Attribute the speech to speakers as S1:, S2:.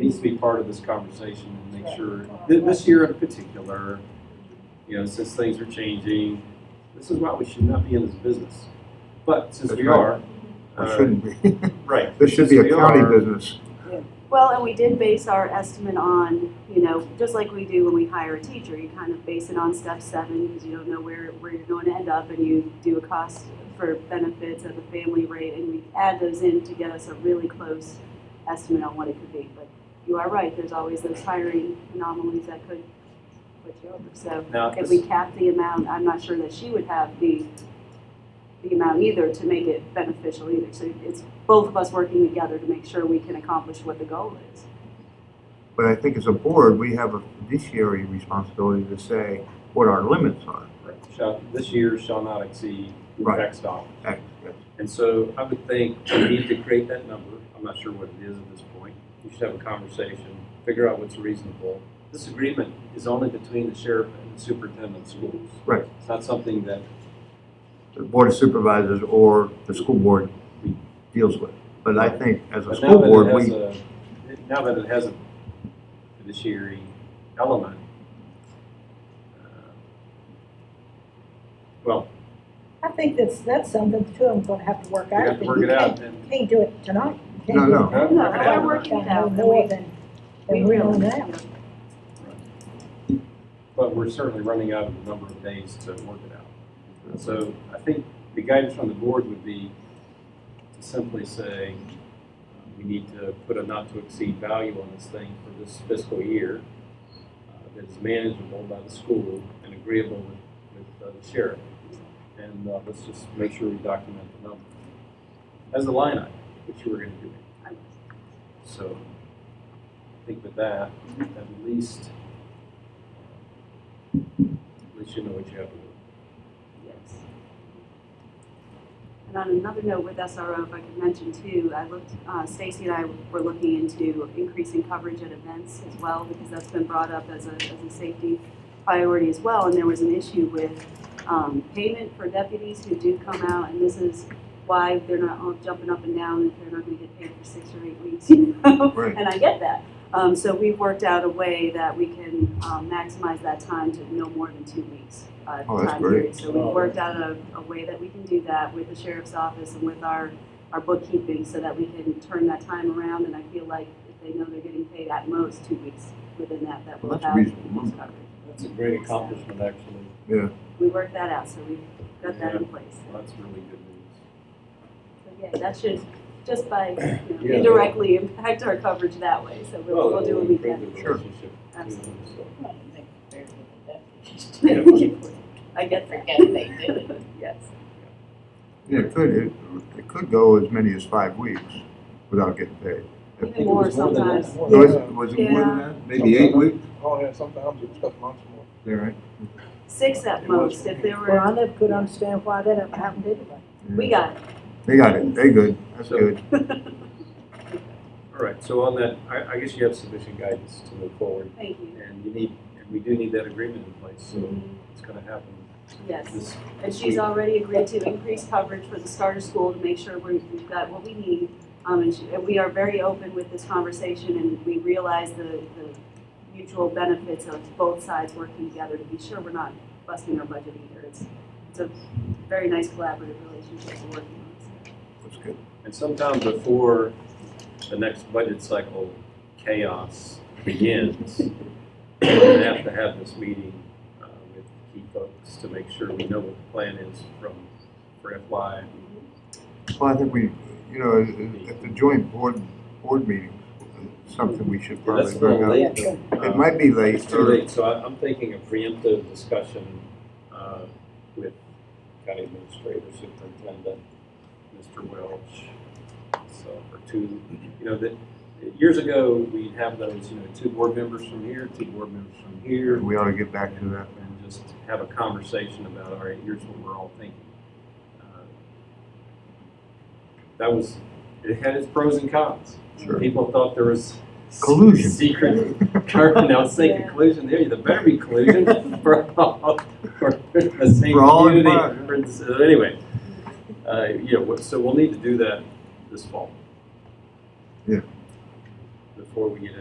S1: needs to be part of this conversation and make sure, thi- this year in particular, you know, since things are changing, this is why we should not be in this business. But since
S2: That's
S1: we
S2: right.
S1: are.
S2: It
S1: uh,
S2: shouldn't be.
S1: Right.
S2: This should be
S1: since
S2: a
S1: we
S2: county
S1: are-
S2: business.
S3: Well, and we did base our estimate on, you know, just like we do when we hire a teacher, you kind of base it on step seven because you don't know where, where you're going to end up and you do a cost for benefits at the family rate and we add those in to get us a really close estimate on what it could be. But you are right, there's always those hiring anomalies that could put you over. So
S1: Now, this-
S3: if we cap the amount, I'm not sure that she would have the, the amount either to make it beneficial either. So it's both of us working together to make sure we can accomplish what the goal is.
S2: But I think as a board, we have a fiduciary responsibility to say what our limits are.
S1: shall, this year shall not exceed
S2: Right.
S1: X dollars.
S2: Act- yes.
S1: And so I would think we need to create that number. I'm not sure what it is at this point. You should have a conversation, figure out what's reasonable. This agreement is only between the sheriff and the superintendent of schools.
S2: Right.
S1: It's not something that
S2: The Board of Supervisors or the school board deals with. But I think as a
S1: But
S2: school
S1: now that
S2: board,
S1: it has
S2: we,
S1: a, now that it has a fiduciary element, uh, well,
S4: I think that's, that's something the two of them gonna have to work
S1: we
S4: out.
S1: have to work it out and.
S4: You Can't do it tonight. You can't
S2: No,
S4: do
S2: no.
S1: Huh?
S4: it.
S3: No,
S1: Work it
S3: we're
S1: out.
S3: working it out.
S4: No more than,
S3: We
S4: than we know
S3: really-
S4: now.
S1: But we're certainly running out of the number of days to work it out. And so I think the guidance from the board would be to simply say, uh, we need to put a not to exceed value on this thing for this fiscal year uh, that is manageable by the school and agreeable with, with uh, the sheriff. And uh, let's just make sure we document the number as a line item, which you were gonna do. So I think with that, at least, at least you know what you have to do.
S3: Yes. And on another note with SRO, if I could mention too, I looked, uh, Stacy and I were looking into increasing coverage at events as well, because that's been brought up as a, as a safety priority as well, and there was an issue with, um, payment for deputies who do come out, and this is why they're not all jumping up and down, if they're not gonna get paid for six or eight weeks, you know?
S2: Right.
S3: And I get that. Um, so we've worked out a way that we can, um, maximize that time to no more than two weeks, uh,
S2: Oh, that's
S3: time
S2: great.
S3: period. So we've worked out a, a way that we can do that with the sheriff's office and with our, our bookkeeping so that we can turn that time around. And I feel like if they know they're getting paid at most two weeks within that, that
S2: Well,
S3: will
S2: that's
S3: have
S2: reasonable.
S3: most coverage.
S1: That's a great accomplishment, actually.
S3: We worked that out, so we've got that in place.
S1: Well, That's really good news.
S3: So yeah, that should, just by, you
S1: Yeah.
S3: know, indirectly impact our coverage that way. So we'll, we'll do what we can.
S2: Sure.
S3: Absolutely.
S1: Absolutely.
S3: I get that.
S5: Forget they did it.
S3: Yes.
S2: yeah, it could, it, it could go as many as five weeks without getting paid. If
S3: Even
S2: people-
S3: more
S1: was more than that.
S3: sometimes.
S2: Was, it- was it more than
S3: Yeah.
S2: that? Maybe eight weeks?
S6: Oh, yeah, sometimes it's a couple months more.
S2: All right.
S3: Six at most, if there
S4: Well, I
S3: were,
S4: never could understand why that ever happened anyway.
S3: we got it.
S2: They got it. They good. That's
S1: So-
S2: good.
S1: All right, so on that, I, I guess you have sufficient guidance to move forward,
S3: Thank you.
S1: and you need, and we do need that agreement in place, so
S3: Mm-hmm.
S1: it's gonna happen
S3: Yes.
S1: this.
S3: And she's already agreed to increase coverage for the starter school to make sure we- we've got what we need. Um, and she, and we are very open with this conversation and we realize the, the mutual benefits of both sides working together to be sure we're not busting our budget either. It's, it's a very nice collaborative relationship we're working on.
S2: That's good.
S1: And sometime before the next budget cycle chaos begins, we're gonna have to have this meeting uh, with key folks to make sure we know what the plan is from, for FY.
S2: Well, I think we, you know, at the joint board, board meeting, something we should
S1: Yeah, That's
S2: probably
S1: a little
S2: bring up.
S1: late.
S4: Yeah,
S1: though.
S2: It might be late.
S1: It's too late, so I- I'm thinking a preemptive discussion uh, with county administrator, superintendent, Mr. Welch. So, or two, you know, that, years ago, we'd have those, you know, two board members from here, two board members from
S2: or
S1: here,
S2: We ought to get back to that.
S1: and just have a conversation about, all right, here's what we're all thinking. Uh, That was, it had its pros and cons.
S2: Sure.
S1: People thought there was.
S2: Collusion.
S1: Secret Carmen, I was thinking collusion there, there better be collusion for all, for the same
S2: For all
S1: community.
S2: involved.
S1: for this- so Anyway, uh, yeah, what- so we'll need to do that this fall.
S2: Yeah.
S1: Before we get